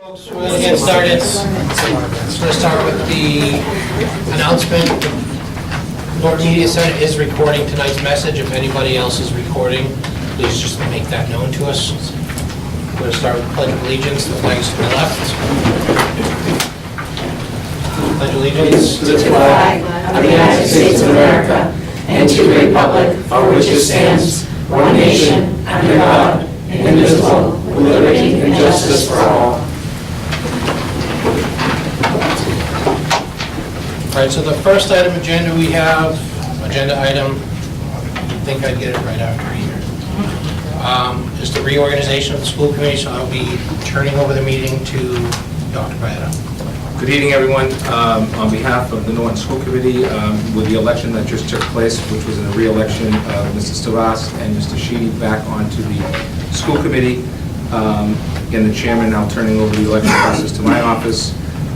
folks, we're gonna get started. Just gonna start with the announcement. Norton Media Center is recording tonight's message. If anybody else is recording, please just make that known to us. We're gonna start with pledge of allegiance, the flags to the left. Pledge allegiance. to the flag of the United States of America and to the republic for which it stands, one nation, under God, indivisible, with liberty and justice for all. All right, so the first item agenda we have, agenda item, I think I'd get it right after here, um, is the reorganization of the school committee, so I'll be turning over the meeting to Dr. Byetta. Good evening, everyone. Um, On behalf of the Norton School Committee, um, with the election that just took place, which was a reelection of Mrs. Taras and Mr. Sheedy back onto the school committee, um, and the chairman now turning over the election process to my office,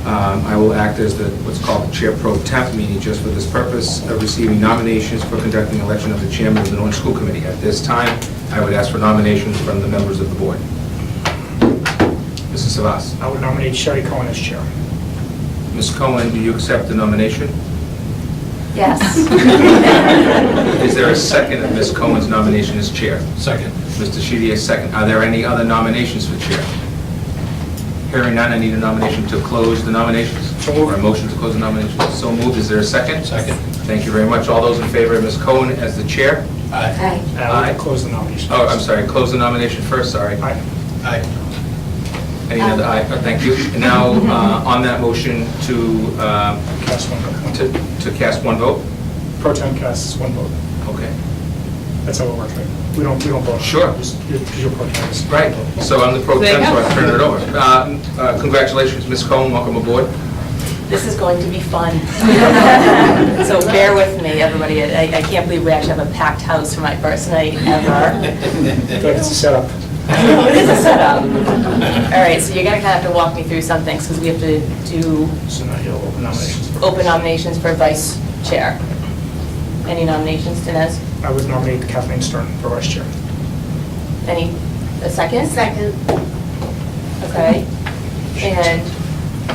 um, I will act as the, what's called Chair Pro Temp, meaning just for this purpose of receiving nominations for conducting election of the chairman of the Norton School Committee. At this time, I would ask for nominations from the members of the board. Mrs. Taras. I would nominate Sherry Cohen as chair. Uh, Ms. Cohen, do you accept the nomination? Yes. Is there a second of Ms. Cohen's nomination as chair? Second. Mr. Shidi, a second. Are there any other nominations for chair? Hearing none, I need a nomination to close the nominations. So moved. Or a motion to close the nominations. So moved. Is there a second? Second. Thank you very much. All those in favor of Ms. Cohen as the chair? Aye. Aye. And I Aye. would close the nomination. Oh, I'm sorry, close the nomination first, sorry. Aye. Aye. Any other, aye, Oh, thank you. And Now, uh, on that motion to, uh, Cast one vote. to to cast one vote? Pro tem casts one vote. Okay. That's how it works, right? We don't, we don't vote. Sure. Just- you're- 'cause you're pro tem. It's- Right, so I'm the pro There you temp, so go. I turn it over. Uh, uh, Congratulations, Ms. Cohen, welcome aboard. This is going to be fun. So bear with me, everybody. I I can't believe we actually have a packed house for my first night ever. I feel like It's a setup. It is a setup. All right, so you're going to kind of have to walk me through some things because we have to do So now you'll open nominations. for- open nominations for vice chair. Any nominations, Dinesh? I would nominate Kathleen Stern for vice chair. Any, a second? Second. Okay. And,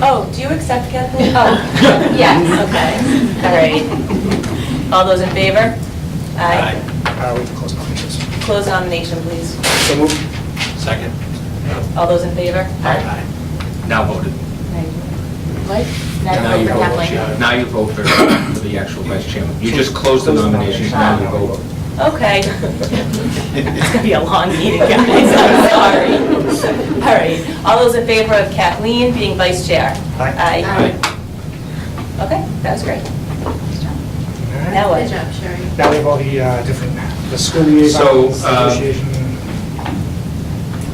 oh, do you accept Kathleen? Oh, yes, okay. All right. All those in favor? Aye. I would Uh, close nominations. Close nomination, please. So move. Second. All those in favor? Aye. Now voted. Mike? Now you Now vote, Kathleen? yeah. Now you vote for for the actual vice chairman. You just closed the nominations, now you vote. Okay. It's gonna be a long meeting, guys, I'm sorry. All right, all those in favor of Kathleen being vice chair? Aye. Aye. Okay, that was great. All right. Now Good what? job, Sherry. Now we have all the uh, different, the school liaisons, So, uh, negotiation.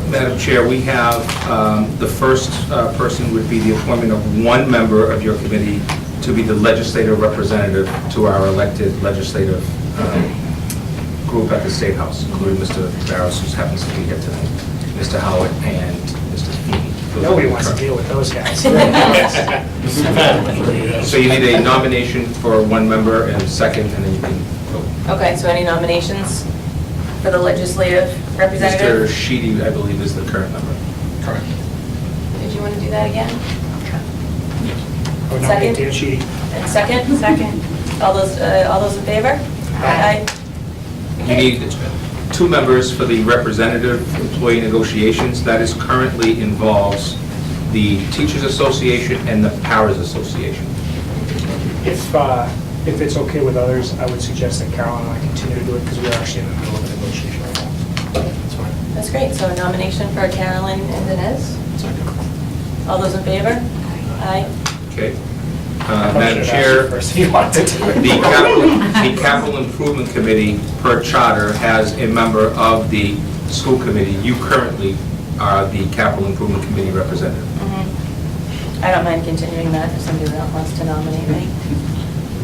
Madam Chair, we have, um, the first uh, person would be the appointment of one member of your committee to be the legislative representative to our elected legislative um, group at the State House, including Mr. Barros, who happens to be here tonight, Mr. Howard, and Mr. Feeney. Nobody wants to deal with those guys. So you need a nomination for one member and second, and then you can vote. Okay, so any nominations for the legislative Mr. representative? Sheedy, I believe, is the current member. Correct. Did you want to do that again? I would nominate Second. Dan Sheedy. And second? Second. All those, uh, all those in favor? Aye. You need two members for the representative employee negotiations. That is currently involves the Teachers Association and the Powers Association. If, uh, if it's okay with others, I would suggest that Carol and I continue to do it because we are actually in the middle of a negotiation right now. That's fine. That's great, so a nomination for Carolyn and Dinesh? Second. All those in favor? Aye. Okay? Uh, Madam Chair, First, if you want to do The it. capital, the capital improvement committee per charter has a member of the school committee. You currently are the capital improvement committee representative. I don't mind continuing that if somebody else wants to nominate me.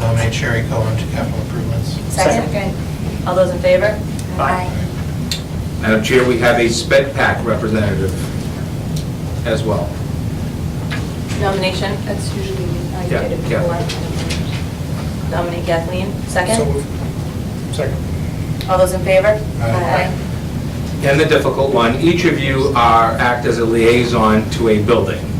Nominate Sherry Cohen to capital improvements. Second. All those in favor? Aye. Madam Chair, we have a SPED PAC representative as well. Nomination, That's usually me. I Yeah, did it yeah. before. nominate Kathleen, So second. moved. Second. All those in favor? Aye. And the difficult one, each of you are, act as a liaison to a building.